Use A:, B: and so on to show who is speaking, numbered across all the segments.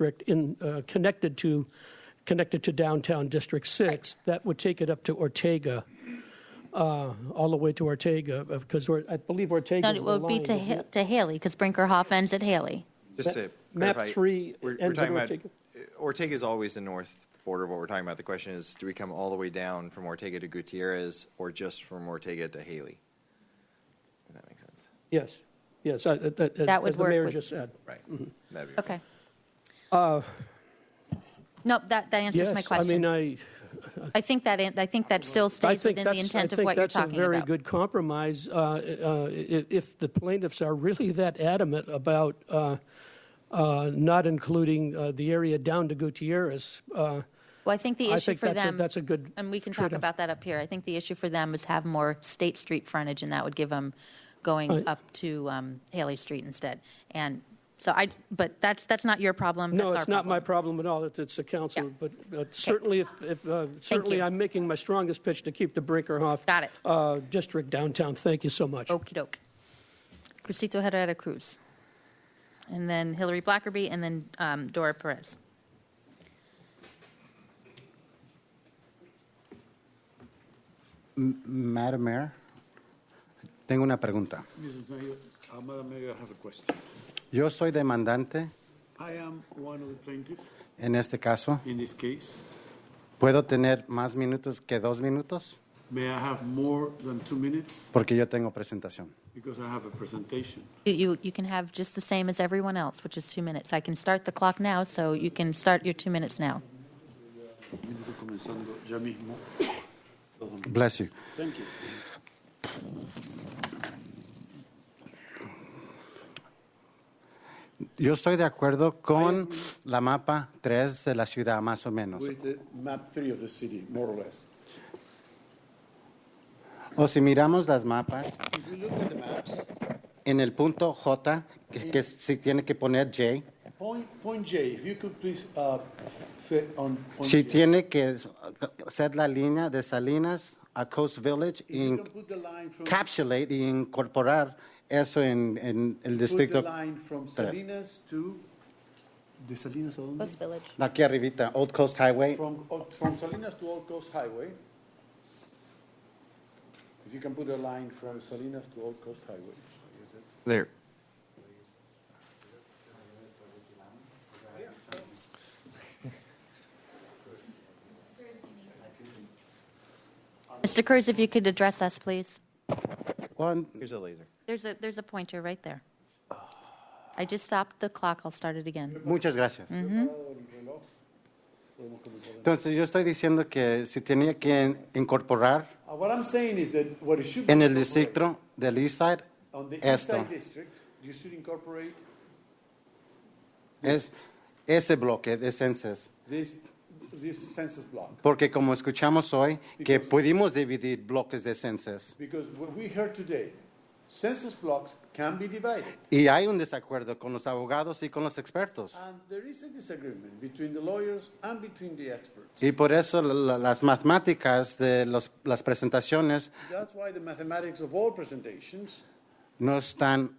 A: district in, uh, connected to, connected to downtown District Six. That would take it up to Ortega, uh, all the way to Ortega, because Or- I believe Ortega
B: No,
A: is the
B: it would be
A: line,
B: to,
A: isn't
B: Ha-
A: it?
B: to Haley, because Brinkerhoff ends at Haley.
C: Just to
A: map
C: clarify,
A: three
C: we're, we're
A: ends at
C: talking about uh,
A: Ortega.
C: Ortega is always the north border of what we're talking about. The question is, do we come all the way down from Ortega to Gutierrez, or just from Ortega to Haley? If that makes sense,
A: Yes, yes, I- that, that-
B: That would
A: as the
B: work
A: mayor
B: with-
A: just said.
C: right? That'd be
B: Okay. Nope, that, that answers my
A: Uh, Yes, I mean,
B: question.
A: I.
B: I think that, an- I think that still
A: I
B: stays
A: think
B: within the
A: that's, I
B: intent of
A: think
B: what you're
A: that's a
B: talking
A: very
B: about.
A: good compromise uh, uh, i- if the plaintiffs are really that adamant about uh, uh, not including uh, the area down to Gutierrez. uh,
B: Well, I think the
A: I
B: issue
A: think
B: for
A: that's a-
B: them.
A: that's a good
B: And we can talk
A: trade-off.
B: about that up here. I think the issue for them is have more State Street frontage, and that would give them going
A: Right.
B: up to um, Haley Street instead. And so I, but that's, that's not your problem.
A: No,
B: that's our
A: it's not my problem at all, It's- it's the council,
B: Yeah.
A: but uh, certainly, if- if, uh, certainly
B: you.
A: I'm making my strongest pitch to keep the Brinkerhoff.
B: Got it.
A: uh, District downtown, thank you so much.
B: Okey doke. Crucito Herrera Cruz. And then Hillary Blackerby, and then um, Dora Perez.
D: Madam Mayor, tengo una pregunta.
E: Mrs. Mayor, uh, Madam Mayor, I have a question.
D: Yo soy demandante
E: I am one of the plaintiffs
D: en este caso.
E: in this case.
D: ¿Puedo tener más minutos que dos minutos?
E: May I have more than two minutes?
D: Porque yo tengo presentación.
E: Because I have a presentation.
B: You- You, you can have just the same as everyone else, which is two minutes. I can start the clock now, so you can start your two minutes now.
E: Minuto comenzando ya mismo.
D: Bless you.
E: Thank you.
D: Yo estoy de acuerdo con la mapa 3 de la ciudad, más o menos.
E: With the map three of the city, more or less.
D: O si miramos las mapas,
E: If we look at the maps,
D: en el punto J, que, que si tiene que poner J,
E: point, point J, if you could please, uh, fit on. point
D: si
E: J.
D: tiene que ser la línea de Salinas a Coast Village
E: If you
D: y
E: can put the line from.
D: encapsulate y incorporar eso en, en el
E: Put the
D: distrito.
E: line from
D: tres.
E: Salinas to, de Salinas a dónde?
B: Village.
D: Aquí arribita, Old Coast Highway.
E: From, oh, from Salinas to Old Coast Highway. If you can put a line from Salinas to Old Coast Highway.
C: there.
B: Mr. Cruz, if you could address us, please.
D: One,
C: Here's a laser.
B: There's a, there's a pointer right there. I just stopped the clock. I'll start it again.
D: muchas gracias.
E: Mm. Uh,
D: Entonces, yo estoy diciendo que si tenía que incorporar
E: Uh, What I'm saying is that what it should be.
D: en el distrito del East Side,
E: On the East
D: esto,
E: Side District, you should incorporate
D: es ese bloque de censos.
E: this, this census block.
D: Porque como escuchamos hoy, que pudimos dividir bloques de censos.
E: Because what we heard today, census blocks can be divided.
D: Y hay un desacuerdo con los abogados y con los expertos.
E: And there is a disagreement between the lawyers and between the experts.
D: Y por eso la- la- las matemáticas de los- las presentaciones
E: That's why the mathematics of all presentations,
D: no están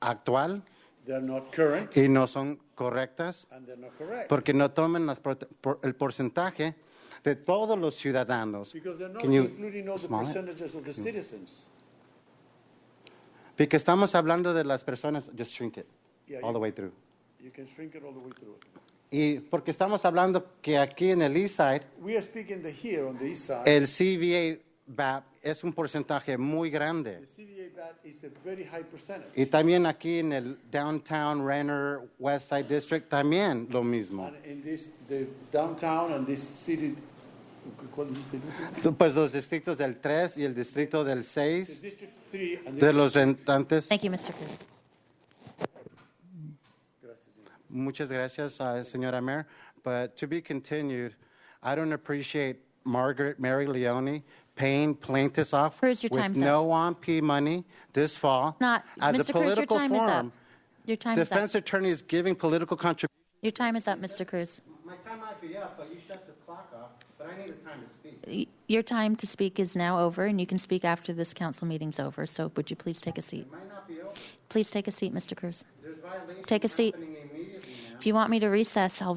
D: actual
E: they're not current
D: y no son correctas.
E: and they're not correct.
D: porque no tomen las prote- por- el porcentaje de todos los ciudadanos.
E: Because they're not
D: Can you
E: including all the
D: smile?
E: percentages of the citizens.
D: Porque estamos hablando de las personas, just shrink it
E: Yeah,
D: all the
E: you-
D: way through.
E: You can shrink it all the way through.
D: Y porque estamos hablando que aquí en el East Side,
E: We are speaking the here on the east side.
D: el CVA BAP es un porcentaje muy grande.
E: The CDA VAT is a very high percentage.
D: Y también aquí en el Downtown Renner West Side District también lo mismo.
E: And in this, the downtown and this city, ¿cuál es el distrito?
D: Pues los distritos del 3 y el distrito del
E: The
D: 6
E: district three and
D: de
E: the.
D: los rentantes.
B: Thank you, Mr. Cruz.
D: Muchas gracias, uh, Señora Mayor. But to be continued, I don't appreciate Margaret Mary Leone paying plaintiffs off
B: Cruz, your
D: with
B: time's up.
D: no OMP money this fall
B: Not,
D: as a
B: Mr. Cruz, your
D: political
B: time is up.
D: forum.
B: Your time is up.
D: Defense attorneys giving political contributions.
B: Your time is up, Mr. Cruz.
D: My time might be up, but you shut the clock off. But I need the time to speak.
B: Y- Your time to speak is now over, and you can speak after this council meeting's over, so would you please take a seat?
D: Might not be over.
B: Please take a seat, Mr. Cruz.
D: There's violations
B: Take a seat.
D: happening immediately now.
B: If you want me to recess, I'll